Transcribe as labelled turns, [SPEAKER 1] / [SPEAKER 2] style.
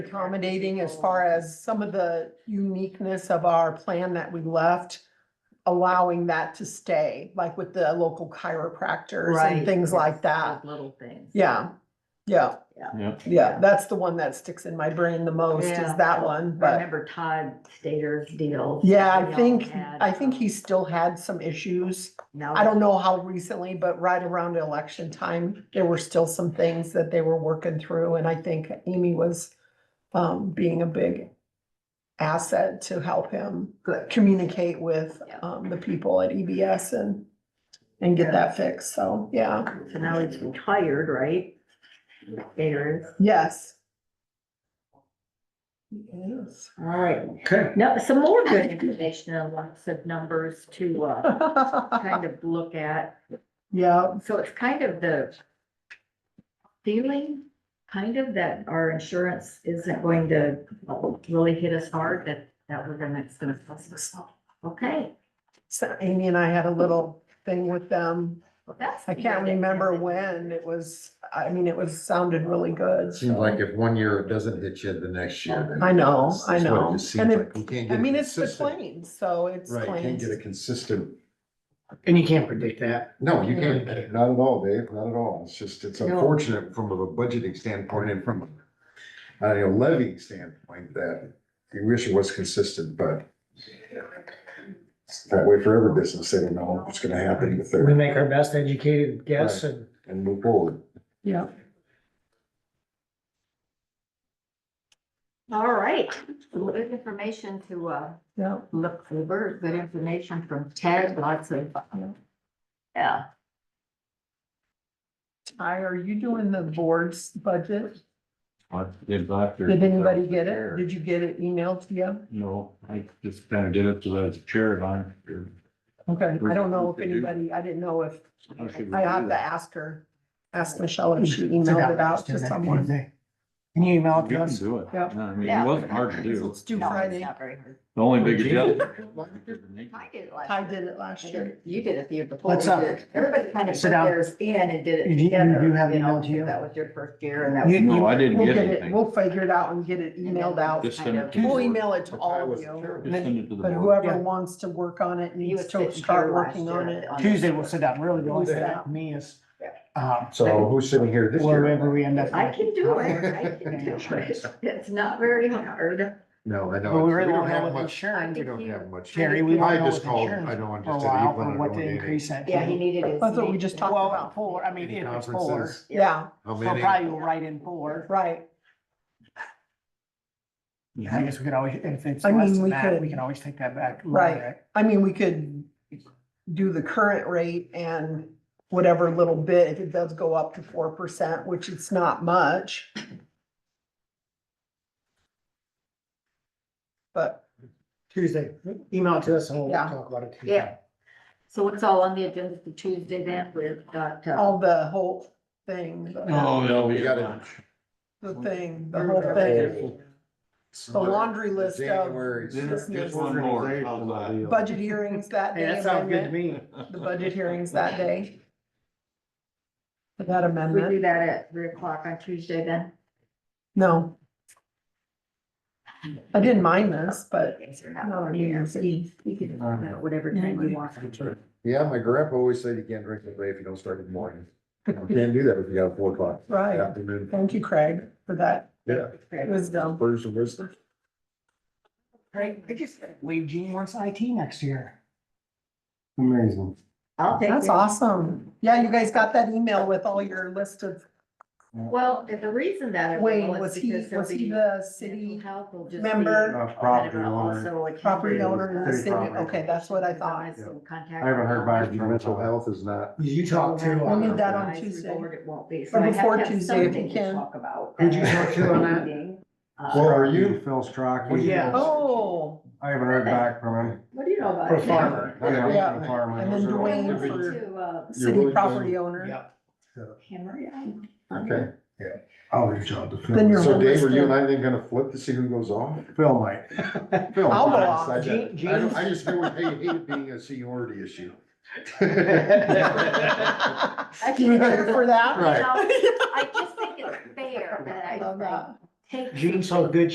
[SPEAKER 1] accommodating as far as some of the uniqueness of our plan that we left, allowing that to stay, like with the local chiropractors and
[SPEAKER 2] Right.
[SPEAKER 1] things like that.
[SPEAKER 2] Those Little things.
[SPEAKER 1] Yeah, yeah,
[SPEAKER 3] Yeah,
[SPEAKER 1] yeah. That's the one that sticks in my brain the most is
[SPEAKER 2] Yeah.
[SPEAKER 1] that one,
[SPEAKER 2] I
[SPEAKER 1] but
[SPEAKER 2] remember Todd Stater's deal.
[SPEAKER 1] yeah,
[SPEAKER 2] We
[SPEAKER 1] I
[SPEAKER 2] all
[SPEAKER 1] think,
[SPEAKER 2] had,
[SPEAKER 1] I think
[SPEAKER 2] um,
[SPEAKER 1] he still had some issues.
[SPEAKER 2] no,
[SPEAKER 1] I don't know how recently, but right around election time, there were still some things that they were working through, and I think Amy was um, being a big asset to help him
[SPEAKER 2] Good.
[SPEAKER 1] communicate with
[SPEAKER 2] Yeah.
[SPEAKER 1] um, the people at EBS and and get that fixed, so, yeah,
[SPEAKER 2] So now he's retired, right? Stater is.
[SPEAKER 1] yes. Yes.
[SPEAKER 2] All right.
[SPEAKER 3] okay.
[SPEAKER 2] Now, some more good information and lots of numbers to, uh, kind of look at.
[SPEAKER 1] Yeah,
[SPEAKER 2] So it's kind of the feeling, kind of that our insurance isn't going to really hit us hard, that, that we're gonna, it's gonna cost us. Okay,
[SPEAKER 1] so Amy and I had a little thing with them
[SPEAKER 2] well, that's.
[SPEAKER 1] I can't remember when it was, I mean, it was, sounded really good.
[SPEAKER 4] Seems like if one year it doesn't hit you, the next year.
[SPEAKER 1] I know, I
[SPEAKER 4] That's what it
[SPEAKER 1] know.
[SPEAKER 4] just
[SPEAKER 1] And
[SPEAKER 4] seems
[SPEAKER 1] it,
[SPEAKER 4] like. You can't
[SPEAKER 1] I
[SPEAKER 4] get a
[SPEAKER 1] mean, it's the
[SPEAKER 4] consistent-
[SPEAKER 1] claims, so it's
[SPEAKER 4] Right, you can't
[SPEAKER 1] claims.
[SPEAKER 4] get a consistent,
[SPEAKER 5] And you can't predict that.
[SPEAKER 4] no, you can't, not at all, Dave, not at all. It's just, it's
[SPEAKER 2] No.
[SPEAKER 4] unfortunate from a budgeting standpoint and from a levy standpoint that you wish it was consistent, but it's that way for every business, they don't know what's gonna happen with
[SPEAKER 5] We
[SPEAKER 4] their,
[SPEAKER 5] make our best educated guess and
[SPEAKER 4] and move forward.
[SPEAKER 1] Yeah.
[SPEAKER 2] All right, good information to, uh,
[SPEAKER 1] Yeah,
[SPEAKER 2] look over, good information from Ted, lots of, uh, yeah.
[SPEAKER 1] Ty, are you doing the board's budget?
[SPEAKER 3] I did that there.
[SPEAKER 1] Did anybody get it? Did you get it emailed to you?
[SPEAKER 3] No, I just kind of did it to the chair line.
[SPEAKER 1] Okay, I don't know if anybody, I didn't know if, I have to ask her, ask Michelle if she emailed it out to someone.
[SPEAKER 5] Can you email
[SPEAKER 3] You
[SPEAKER 5] it to
[SPEAKER 3] can
[SPEAKER 5] us?
[SPEAKER 3] do it.
[SPEAKER 1] Yeah.
[SPEAKER 3] No, I mean, it wasn't hard to do.
[SPEAKER 1] It's due
[SPEAKER 2] No, it's
[SPEAKER 1] Friday.
[SPEAKER 2] not very hard.
[SPEAKER 3] The only big adjustment.
[SPEAKER 2] I did it last
[SPEAKER 1] Ty
[SPEAKER 2] year.
[SPEAKER 1] did it last
[SPEAKER 2] I did
[SPEAKER 1] year.
[SPEAKER 2] it- You did it the year before.
[SPEAKER 5] Let's,
[SPEAKER 2] we
[SPEAKER 5] uh,
[SPEAKER 2] did. Everybody kind of
[SPEAKER 5] sit
[SPEAKER 2] put
[SPEAKER 5] down.
[SPEAKER 2] theirs in and did
[SPEAKER 5] You
[SPEAKER 2] it
[SPEAKER 5] do- you
[SPEAKER 2] together.
[SPEAKER 5] do have
[SPEAKER 2] know,
[SPEAKER 5] email, do you?
[SPEAKER 2] That was your first year and that
[SPEAKER 5] You-
[SPEAKER 2] was.
[SPEAKER 3] No, I
[SPEAKER 1] We'll
[SPEAKER 3] didn't get
[SPEAKER 1] get it,
[SPEAKER 3] anything.
[SPEAKER 1] we'll figure it out and get it emailed out.
[SPEAKER 3] Just send it to.
[SPEAKER 1] We'll
[SPEAKER 3] the board.
[SPEAKER 1] email it to all of
[SPEAKER 4] was
[SPEAKER 1] you.
[SPEAKER 4] terrible.
[SPEAKER 3] Just send it to the
[SPEAKER 1] But
[SPEAKER 3] board.
[SPEAKER 1] whoever
[SPEAKER 5] Yeah.
[SPEAKER 1] wants to work on it
[SPEAKER 2] He was
[SPEAKER 1] needs to
[SPEAKER 2] sitting
[SPEAKER 1] start
[SPEAKER 2] here last
[SPEAKER 1] working
[SPEAKER 2] year
[SPEAKER 1] on it.
[SPEAKER 5] Tuesday we'll sit down, really, the only thing
[SPEAKER 1] Yeah.
[SPEAKER 5] for me is, um,
[SPEAKER 4] So who's sitting here this year?
[SPEAKER 5] wherever we end up.
[SPEAKER 2] I can do it, I can do it. It's not very hard.
[SPEAKER 4] No, I know.
[SPEAKER 5] But we
[SPEAKER 4] it's-
[SPEAKER 5] really
[SPEAKER 4] don't
[SPEAKER 5] don't know
[SPEAKER 4] have
[SPEAKER 5] with
[SPEAKER 4] much-
[SPEAKER 5] insurance,
[SPEAKER 4] We don't have much.
[SPEAKER 5] Jerry, we
[SPEAKER 4] I
[SPEAKER 5] don't know
[SPEAKER 4] just
[SPEAKER 5] with
[SPEAKER 4] called, I
[SPEAKER 5] insurance
[SPEAKER 4] know, I
[SPEAKER 5] for a
[SPEAKER 4] just said
[SPEAKER 5] while
[SPEAKER 4] Evelyn,
[SPEAKER 5] for
[SPEAKER 4] I
[SPEAKER 5] what
[SPEAKER 4] don't
[SPEAKER 5] the
[SPEAKER 4] need
[SPEAKER 5] increase that.
[SPEAKER 2] Yeah, he needed his.
[SPEAKER 1] That's what we
[SPEAKER 2] knee-
[SPEAKER 1] just talked
[SPEAKER 5] Well,
[SPEAKER 1] about.
[SPEAKER 5] four, I mean,
[SPEAKER 4] Any
[SPEAKER 5] if it's four,
[SPEAKER 4] conferences?
[SPEAKER 1] Yeah,
[SPEAKER 4] how
[SPEAKER 5] so
[SPEAKER 4] many.
[SPEAKER 5] probably we'll write in four.
[SPEAKER 1] right.
[SPEAKER 5] I guess we could always, if it's
[SPEAKER 1] I mean,
[SPEAKER 5] less
[SPEAKER 1] we
[SPEAKER 5] than that,
[SPEAKER 1] could-
[SPEAKER 5] we can always take that back. lower
[SPEAKER 1] Right.
[SPEAKER 5] it.
[SPEAKER 1] I mean, we could do the current rate and whatever little bit, if it does go up to four percent, which it's not much. But,
[SPEAKER 5] Tuesday, email it to us and we'll
[SPEAKER 1] Yeah.
[SPEAKER 5] talk about it Tuesday.
[SPEAKER 2] Yeah. So it's all on the agenda for Tuesday then, we've got, uh,
[SPEAKER 1] all the whole thing, the-
[SPEAKER 3] Oh, no,
[SPEAKER 4] We
[SPEAKER 3] we
[SPEAKER 4] got
[SPEAKER 3] got
[SPEAKER 4] it.
[SPEAKER 1] the thing, the whole thing,
[SPEAKER 4] Okay.
[SPEAKER 1] the laundry list of
[SPEAKER 4] January.
[SPEAKER 1] Just-
[SPEAKER 3] Just one more. How's that?
[SPEAKER 1] budget hearings that
[SPEAKER 5] Hey,
[SPEAKER 1] day.
[SPEAKER 5] that sounds good to
[SPEAKER 1] amendment,
[SPEAKER 5] me.
[SPEAKER 1] The budget hearings that day. For That
[SPEAKER 2] we do
[SPEAKER 1] amendment,
[SPEAKER 2] that at three o'clock on Tuesday then.
[SPEAKER 1] no. I didn't mind this, but
[SPEAKER 2] Yes, or not,
[SPEAKER 1] No,
[SPEAKER 2] or
[SPEAKER 1] New Year's
[SPEAKER 2] You you can, do that whatever time you want.
[SPEAKER 4] uh, Yeah, my grandpa always said you can't drink the day if you don't start in the morning. You Can't do that if you got four o'clock in the
[SPEAKER 1] Right,
[SPEAKER 4] afternoon.
[SPEAKER 1] thank you, Craig, for that
[SPEAKER 4] Yeah.
[SPEAKER 1] wisdom.
[SPEAKER 4] Wisdom, wisdom.
[SPEAKER 5] Right, I just, Wade Gene wants IT next year.
[SPEAKER 4] Amazing.
[SPEAKER 2] I'll take
[SPEAKER 1] That's
[SPEAKER 2] it.
[SPEAKER 1] awesome. Yeah, you guys got that email with all your list of,
[SPEAKER 2] Well, the reason that. it
[SPEAKER 1] Wayne, was he,
[SPEAKER 2] because
[SPEAKER 1] was he
[SPEAKER 2] somebody-
[SPEAKER 1] the
[SPEAKER 2] mental
[SPEAKER 1] city?
[SPEAKER 2] health will just be
[SPEAKER 1] member?
[SPEAKER 2] kind of
[SPEAKER 6] property owner.
[SPEAKER 2] also a
[SPEAKER 1] Property owner
[SPEAKER 2] community,
[SPEAKER 1] in the
[SPEAKER 2] uh,
[SPEAKER 1] city. Okay, that's what I thought.
[SPEAKER 2] Advise and contact
[SPEAKER 6] I haven't heard back
[SPEAKER 2] them.
[SPEAKER 6] from
[SPEAKER 4] Mental health is not,
[SPEAKER 5] You talk to.
[SPEAKER 2] We'll
[SPEAKER 5] uh,
[SPEAKER 1] need that on
[SPEAKER 2] Advisory
[SPEAKER 1] Tuesday.
[SPEAKER 2] board, It won't be. So
[SPEAKER 1] Or
[SPEAKER 2] I have to
[SPEAKER 1] before
[SPEAKER 2] have
[SPEAKER 1] Tuesday, if you
[SPEAKER 2] something to
[SPEAKER 1] can.
[SPEAKER 2] Talk about. uh,
[SPEAKER 5] Who'd you talk to on that?
[SPEAKER 4] Well,
[SPEAKER 2] that?
[SPEAKER 4] are you-
[SPEAKER 6] Phil Strachey.
[SPEAKER 5] Well, yeah.
[SPEAKER 1] Oh,
[SPEAKER 6] I haven't heard back from him.
[SPEAKER 2] What do you know about?
[SPEAKER 5] For
[SPEAKER 2] it?
[SPEAKER 5] farmer.
[SPEAKER 6] I haven't heard
[SPEAKER 1] Yeah.
[SPEAKER 6] from farmer.
[SPEAKER 1] And then
[SPEAKER 6] Those are all
[SPEAKER 1] Dwayne
[SPEAKER 2] I
[SPEAKER 6] different-
[SPEAKER 1] for-
[SPEAKER 2] went to, uh,
[SPEAKER 1] city
[SPEAKER 4] really
[SPEAKER 1] property
[SPEAKER 4] good.
[SPEAKER 1] owner.
[SPEAKER 5] Yep.
[SPEAKER 2] Henry, Island.
[SPEAKER 4] okay.
[SPEAKER 6] I'll reach out to Phil.
[SPEAKER 1] Then you're-
[SPEAKER 4] So Dave, are you and I then gonna flip to see who goes off?
[SPEAKER 6] Phil might.
[SPEAKER 4] Phil,
[SPEAKER 1] I'll go
[SPEAKER 4] I
[SPEAKER 1] off.
[SPEAKER 4] decide that.
[SPEAKER 5] Gene-
[SPEAKER 4] I don't-
[SPEAKER 5] Gene's-
[SPEAKER 4] I just knew it hated it being a seniority issue.
[SPEAKER 1] You were here for that?
[SPEAKER 4] Right.
[SPEAKER 2] Now, I just think it's fair that
[SPEAKER 1] Love
[SPEAKER 2] I
[SPEAKER 1] that.
[SPEAKER 2] Take-
[SPEAKER 5] Gene's so good,